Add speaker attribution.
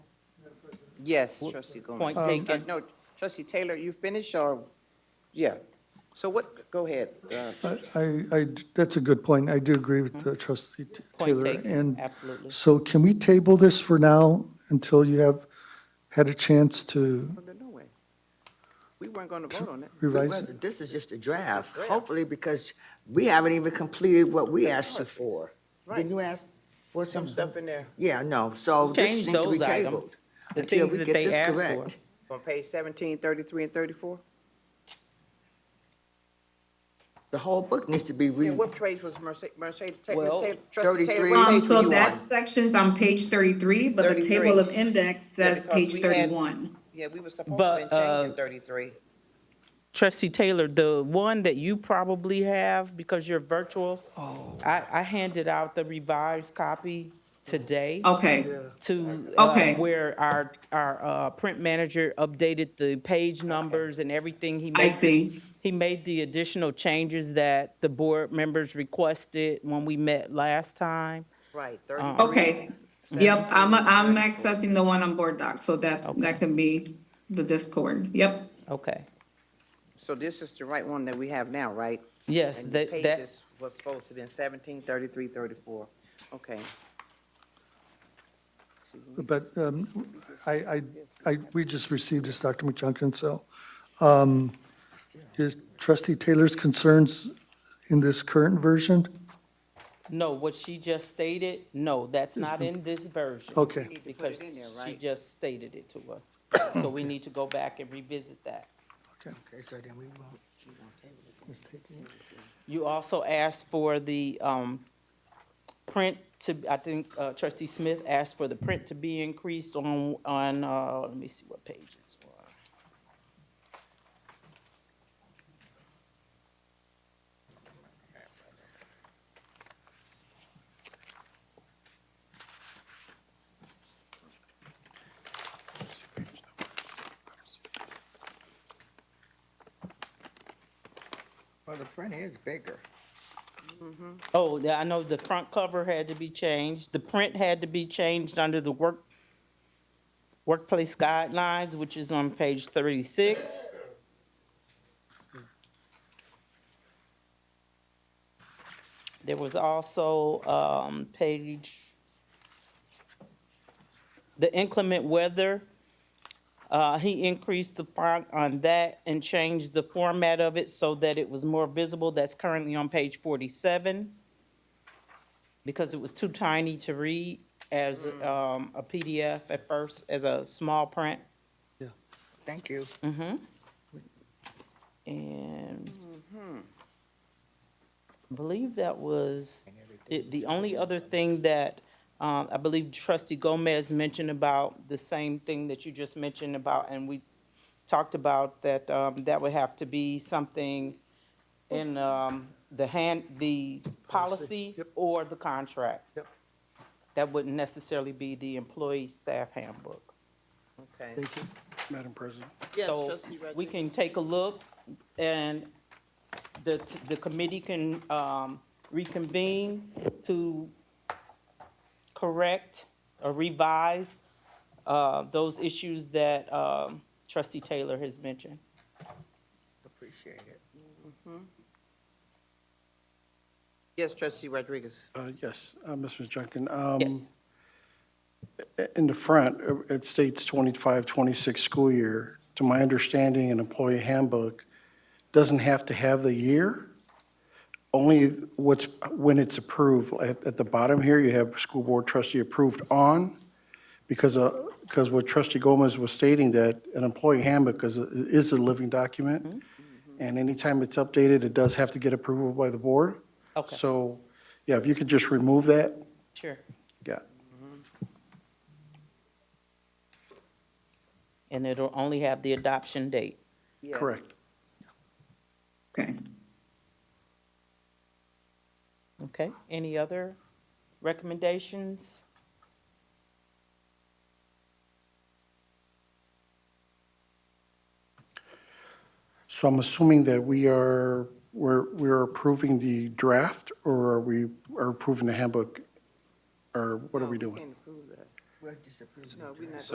Speaker 1: Yes, trustee Gomez.
Speaker 2: Point
Speaker 1: Uh,
Speaker 2: taken.
Speaker 1: No, trustee Taylor, you finish or, yeah. So what, go ahead. uh,
Speaker 3: I, I- I, that's a good point. I do agree with uh, trustee T-
Speaker 2: Mm-hmm. Point
Speaker 3: Taylor.
Speaker 2: taken,
Speaker 3: And
Speaker 2: absolutely.
Speaker 3: so can we table this for now until you have had a chance to,
Speaker 1: No, no way. We weren't going to vote on it.
Speaker 4: It
Speaker 3: revise it?
Speaker 4: wasn't. This is just a draft,
Speaker 1: draft.
Speaker 4: hopefully, because we haven't even completed what we asked you for.
Speaker 1: Right.
Speaker 4: Didn't you ask for
Speaker 1: Some
Speaker 4: some
Speaker 1: stuff in there
Speaker 4: Yeah, no, so this
Speaker 2: Change
Speaker 4: needs to be
Speaker 2: those items,
Speaker 4: tabled.
Speaker 2: The
Speaker 4: until
Speaker 2: things
Speaker 4: we
Speaker 2: that
Speaker 4: get
Speaker 2: they
Speaker 4: this
Speaker 2: asked for.
Speaker 4: correct.
Speaker 1: on page 17, 33, and 34?
Speaker 4: The whole book needs to be re,
Speaker 1: And what page was Mercedes, Mercedes, Ta- Ms.
Speaker 2: Well,
Speaker 1: Taylor, trustee Taylor?
Speaker 4: 33.
Speaker 1: what
Speaker 4: Three
Speaker 5: Um,
Speaker 1: page were
Speaker 5: so
Speaker 1: you
Speaker 5: that
Speaker 1: on?
Speaker 5: section's on page thirty-three, but the
Speaker 1: 33.
Speaker 5: table of index
Speaker 1: Yeah,
Speaker 5: says
Speaker 1: because
Speaker 5: page
Speaker 1: we had-
Speaker 5: thirty-one.
Speaker 1: Yeah, we were supposed to
Speaker 2: But,
Speaker 1: have been changing
Speaker 2: uh,
Speaker 1: 33.
Speaker 2: Trustee Taylor, the one that you probably have, because you're virtual,
Speaker 5: Oh.
Speaker 2: I, I handed out the revised copy today
Speaker 5: Okay,
Speaker 2: to, uh,
Speaker 5: Oh. Okay.
Speaker 2: where our, our, uh, print manager updated the page numbers and everything. He
Speaker 5: I
Speaker 2: made-
Speaker 5: see.
Speaker 2: He made the additional changes that the board members requested when we met last time.
Speaker 1: Right, 33.
Speaker 2: um,
Speaker 5: okay. Yep, I'm, I'm accessing the one on board doc, so that's, that can be the Discord, yep.
Speaker 2: Okay.
Speaker 1: So this is the right one that we have now, right?
Speaker 2: Yes,
Speaker 1: And the
Speaker 2: that, that,
Speaker 1: pages was supposed to be 17, 33, 34. Okay.
Speaker 3: But um, I, I, I, we just received this, Dr. McJunkin, so um, is trustee Taylor's concerns in this current version?
Speaker 2: no, what she just stated, no, that's not in this version.
Speaker 3: Okay.
Speaker 1: We need to put
Speaker 2: Because
Speaker 1: it in there,
Speaker 2: she
Speaker 1: right?
Speaker 2: just stated it to us. So we need to go back and revisit that.
Speaker 4: okay, so then we won't.
Speaker 2: You also asked for the um, print to, I think uh, trustee Smith asked for the print to be increased on, on, uh, let me see what page it's on.
Speaker 4: Well, the print is bigger.
Speaker 2: Oh, yeah, I know the front cover had to be changed, the print had to be changed under the work, workplace guidelines, which is on page thirty-six. There was also, um, page, the inclement weather. Uh, he increased the font on that and changed the format of it so that it was more visible. That's currently on page forty-seven. Because it was too tiny to read as, um, a PDF at first, as a small print.
Speaker 4: Thank you.
Speaker 2: Mm-hmm. And I believe that was, it- the only other thing that, um, I believe trustee Gomez mentioned about the same thing that you just mentioned about, and we talked about that, um, that would have to be something in, um, the hand, the policy
Speaker 3: Yep.
Speaker 2: or the contract.
Speaker 3: Yep.
Speaker 2: That wouldn't necessarily be the employee staff handbook.
Speaker 1: Okay.
Speaker 3: Thank you, Madam President.
Speaker 1: Yes,
Speaker 2: So
Speaker 1: trustee
Speaker 2: we can
Speaker 1: Rodriguez.
Speaker 2: take a look and the, the committee can um, reconvene to correct or revise uh, those issues that um, trustee Taylor has mentioned.
Speaker 4: Appreciate it.
Speaker 1: Yes, trustee Rodriguez.
Speaker 6: Uh, Yes, uh, Mrs. Junkin. um,
Speaker 2: Yes,
Speaker 6: In the front, uh, it states 25, 26 school year. To my understanding, an employee handbook doesn't have to have the year, only what's, when it's approved. At at the bottom here, you have school board trustee approved on, because, uh, because what trustee Gomez was stating, that an employee handbook is, a- is a living document, and anytime it's updated, it does have to get approval by the board.
Speaker 2: okay,
Speaker 6: So, yeah, if you could just remove that,
Speaker 2: sure. Mm-hmm.
Speaker 6: yeah.
Speaker 2: And it'll only have the adoption date.
Speaker 1: Yes.
Speaker 6: Correct.
Speaker 5: Okay,
Speaker 2: Okay, any other recommendations?
Speaker 6: So I'm assuming that we are, we're, we're approving the draft, or are we, are approving the handbook? Or what are we
Speaker 1: No,
Speaker 6: doing?
Speaker 1: can't approve that.
Speaker 4: We'll just approve it.
Speaker 1: No, we're not